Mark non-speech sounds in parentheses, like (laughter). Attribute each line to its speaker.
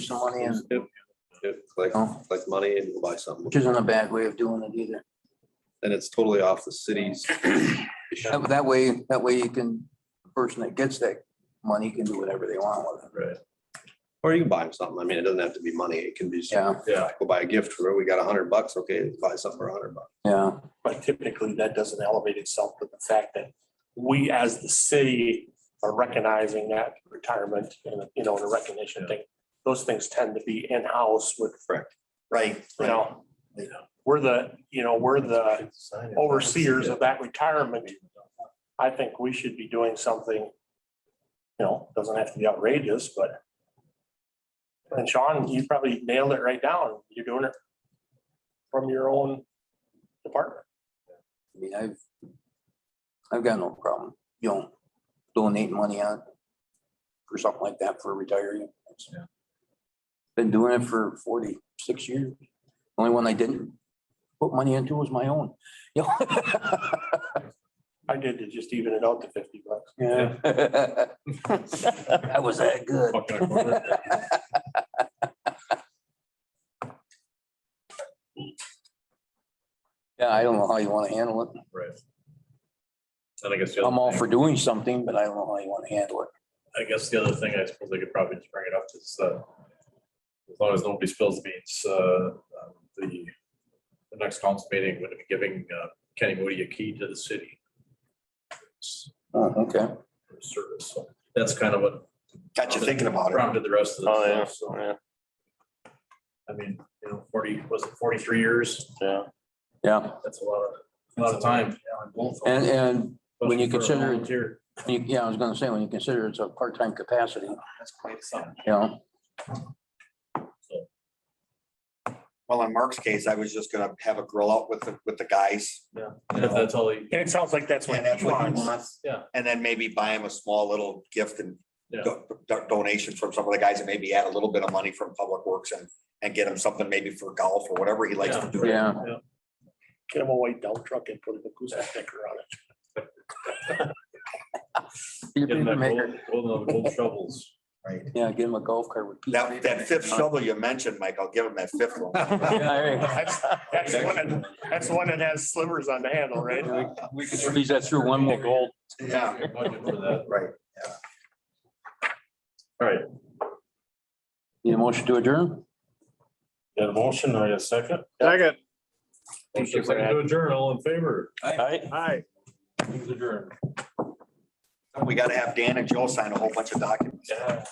Speaker 1: some money and,
Speaker 2: Yep, Collect, collect money and go buy something.
Speaker 1: which isn't a bad way of doing it either.
Speaker 2: And it's totally off the city's. issue.
Speaker 1: That- That way, that way you can, the person that gets that money can do whatever they want with it.
Speaker 3: Right.
Speaker 2: Or you can buy them something. I mean, it doesn't have to be money. It can be, just
Speaker 1: Yeah,
Speaker 3: Yeah,
Speaker 2: go buy a gift for, we got a hundred bucks. Okay, buy something for a hundred bucks.
Speaker 1: yeah,
Speaker 4: But typically that doesn't elevate itself with the fact that we as the city are recognizing that retirement and, you know, the recognition thing. Those things tend to be in-house with.
Speaker 2: Correct.
Speaker 4: Right. You know, we're the, you know, we're the overseers of that retirement. I think we should be doing something, you know, doesn't have to be outrageous, but. And Sean, you probably nailed it right down. You're doing it from your own department.
Speaker 1: I mean, I've, I've got no problem, you know, donating money out for something like that for a retiree.
Speaker 3: Yeah.
Speaker 1: Been doing it for forty-six years. Only one I didn't put money into was my own. (laughs) You know? (laughs)
Speaker 4: I did to just even it out to fifty bucks.
Speaker 1: Yeah. (laughs) That was that good.
Speaker 3: Buck and a quarter.
Speaker 1: (laughs) Yeah, I don't know how you want to handle it.
Speaker 3: right. And I guess. the other
Speaker 1: I'm all
Speaker 3: thing-
Speaker 1: for doing something, but I don't know how you want to handle it.
Speaker 3: I guess the other thing I suppose I could probably just bring it up is, uh, as long as nobody spills the beans, uh, um, the, the next council meeting would be giving uh, Kenny Moody a key to the city
Speaker 1: Oh, okay.
Speaker 3: for service. So That's kind of what
Speaker 2: Got
Speaker 3: you
Speaker 2: thinking about
Speaker 3: prompted the rest of the. stuff. So,
Speaker 4: Oh, yeah,
Speaker 3: I mean, you know, forty, was it forty-three years?
Speaker 4: yeah.
Speaker 1: Yeah,
Speaker 3: That's a lot of, a lot of time.
Speaker 1: and, and, when you
Speaker 3: Especially for a
Speaker 1: consider-
Speaker 3: volunteer.
Speaker 1: you- yeah, I was gonna say, when you consider it's a part-time capacity, you
Speaker 3: That's quite something.
Speaker 1: know,
Speaker 5: Well, in Mark's case, I was just gonna have a grill out with the, with the guys.
Speaker 3: Yeah.
Speaker 5: You know,
Speaker 3: That's all he,
Speaker 4: And it sounds like that's
Speaker 5: And
Speaker 4: what
Speaker 5: that's
Speaker 4: he
Speaker 5: what he
Speaker 4: wants.
Speaker 5: wants.
Speaker 3: Yeah.
Speaker 5: And then maybe buy him a small little gift and
Speaker 3: Yeah.
Speaker 5: do- do- donation from some of the guys and maybe add a little bit of money from Public Works and, and get him something maybe for golf or whatever he likes to do.
Speaker 1: yeah.
Speaker 4: Get him a white dump truck and put an acoustic sticker on it.
Speaker 1: Be a
Speaker 3: give him that
Speaker 1: papermaker.
Speaker 3: gold, gold- gold shovels.
Speaker 1: Yeah, give him a golf cart with.
Speaker 5: That, that fifth shovel you mentioned, Mike, I'll give him that fifth one.
Speaker 1: (laughs)
Speaker 5: (laughs)
Speaker 4: That's that's the one that- that's the one that has slivers on the handle, right?
Speaker 1: We could squeeze that through one more goal.
Speaker 5: Yeah,
Speaker 3: Budget for that.
Speaker 5: right.
Speaker 3: All right,
Speaker 1: Need a motion to adjourn?
Speaker 4: Got a motion, I a second.
Speaker 6: Second.
Speaker 4: Thank you
Speaker 3: motion
Speaker 4: for
Speaker 3: second to adjourn, all in favor?
Speaker 6: Hi.
Speaker 3: Meeting's adjourned.
Speaker 5: We gotta have Dan and Joe sign a whole bunch of documents.
Speaker 3: Yeah.